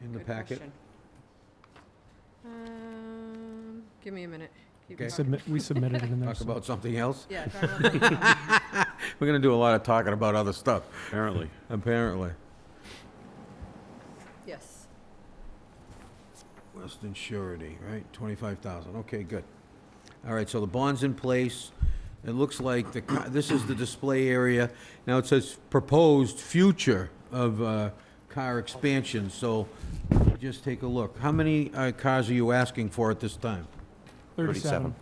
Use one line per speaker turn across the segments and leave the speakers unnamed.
in the
Good
packet.
question. Um, give me a minute. Keep
Okay.
talking.
Submit, we submitted it in there.
Talk about something else?
Yeah, talk about something else.
We're gonna do a lot of talking about other stuff,
apparently.
apparently.
yes.
Western Surety, right, twenty-five thousand, okay, good. All right, so the bond's in place, it looks like the, co- this is the display area. Now it says proposed future of, uh, car expansion, so just take a look. How many, uh, cars are you asking for at this time?
37.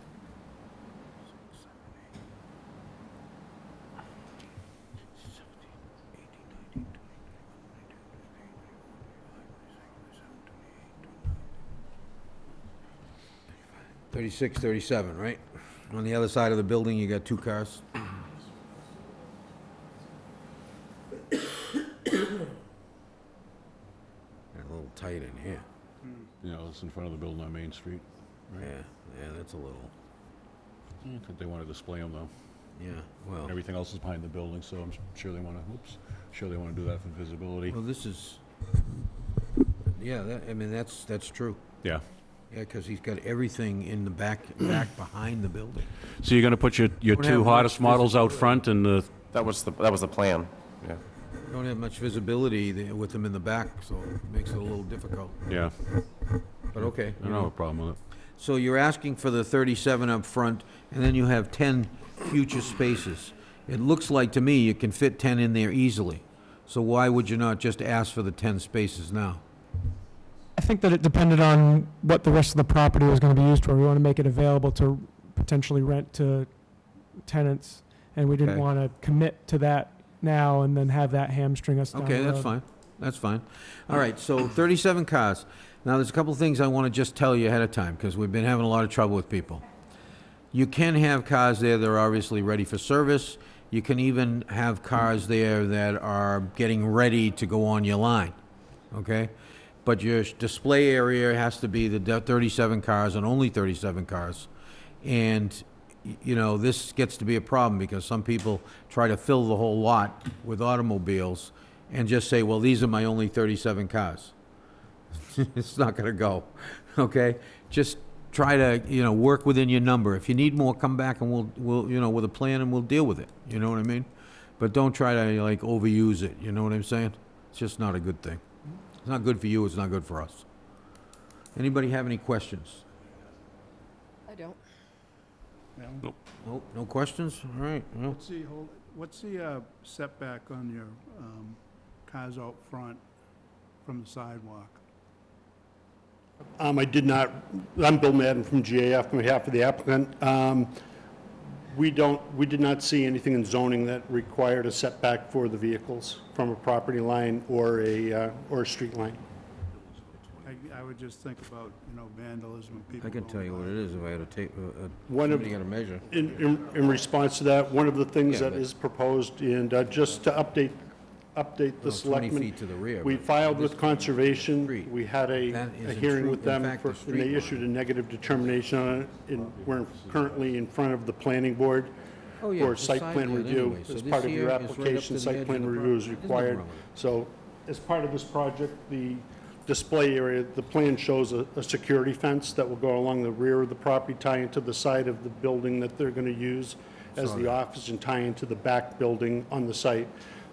Thirty-six, thirty-seven, right? On the other side of the building, you got two cars. They're a little tight in here.
You know, it's in front of the building on Main Street.
Yeah, yeah, that's a little,
I think they want to display them though.
yeah, well,
Everything else is behind the building, so I'm sure they want to, oops, sure they want to do that for visibility.
well, this is, yeah, that, I mean, that's, that's true.
Yeah.
Yeah, because he's got everything in the back, back behind the building.
So you're going to put your, your
Don't have
two
much
hottest models out front and the,
That was the, that was the plan, yeah.
Don't have much visibility there with them in the back, so it makes it a little difficult,
yeah,
but okay.
I don't have a problem with it.
So you're asking for the 37 up front, and then you have 10 future spaces. It looks like to me you can fit 10 in there easily. So why would you not just ask for the 10 spaces now?
I think that it depended on what the rest of the property was going to be used for. We want to make it available to potentially rent to tenants, and we didn't
Okay.
want to commit to that now and then have that hamstring us down the
Okay, that's
road.
fine. That's fine. All right, so 37 cars. Now, there's a couple of things I want to just tell you ahead of time, because we've been having a lot of trouble with people. You can have cars there that are obviously ready for service. You can even have cars there that are getting ready to go on your line, okay? But your sh- display area has to be the de- 37 cars and only 37 cars. And, y- you know, this gets to be a problem because some people try to fill the whole lot with automobiles and just say, well, these are my only 37 cars it's not gonna go, okay? Just try to, you know, work within your number. If you need more, come back and we'll, we'll, you know, with a plan and we'll deal with it, you know what I mean? But don't try to, like, overuse it, you know what I'm saying? It's just not a good thing. It's not good for you, it's not good for us. Anybody have any questions?
I don't.
Nope, no questions? All right, well,
What's the, whole- what's the uh, setback on your um, cars out front from the sidewalk?
Um, I did not, I'm Bill Madden from GAF, on behalf of the applicant. Um, We don't, we did not see anything in zoning that required a setback for the vehicles from a property line or a, uh, or a street line.
I, I would just think about, you know, vandalism and people.
I can tell you what it is if I had to take, uh, uh,
One of-
somebody got a measure.
In, in, in response to that, one of the things
Yeah,
that
but-
is proposed, and uh, just to update, update the
Well, 20
selectmen.
feet to the rear,
We
but
filed
this
with
is
conservation,
street.
we had a,
That is
a
a
hearing
true-
with
in
them,
fact,
for-
a
and
street
they issued a negative determination on it, and we're currently in front of the planning board
Oh, yeah,
for
it's
site
side
plan
yard
review.
anyway, so
As
this
part of
here
your
is right up to
application,
the edge
site
of
plan
the
review is
property. There's nothing
required.
wrong with it.
So as part of this project, the display area, the plan shows a, a security fence that will go along the rear of the property, tie into the side of the building that they're gonna use as the office and tie into the back building on the site.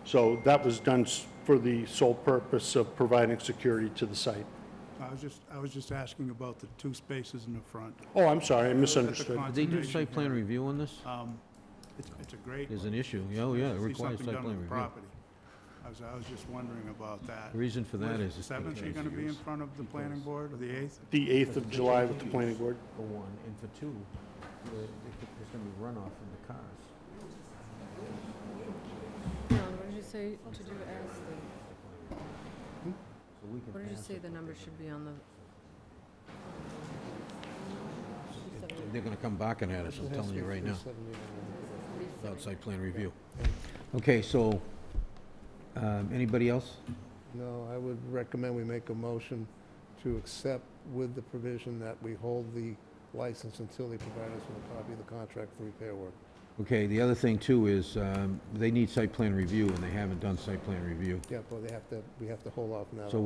So that was done s- for the sole purpose of providing security to the site.
I was just, I was just asking about the two spaces in the front.
Oh, I'm sorry, I
At the
misunderstood.
Did they do
conservation
site plan
hearing,
review on this?
um, It's, it's a great.
There's
one.
an issue, yeah, oh, yeah, it
See
requires
something
site
done
plan
with the
review.
property. I was, I was just wondering about that.
The reason for
What
that
it,
is.
the
it's
Seventh, you're
because
gonna be in
it's
front of the planning board, or the eighth?
The 8th of July with the planning board.
For one, and for two, the- there's gonna be runoff from the cars.
John, what did you say to do as
So
the,
we can
what did you
pass
say
it.
the number should be on the?
They're gonna come barking at us, I'm telling you right now, without site plan review. Okay, so, um, anybody else?
No, I would recommend we make a motion to accept with the provision that we hold the license until they provide us with a copy of the contract for repair work.
Okay, the other thing too is, um, they need site plan review, and they haven't done site plan review.
Yeah, but they have to, we have to hold off now.
So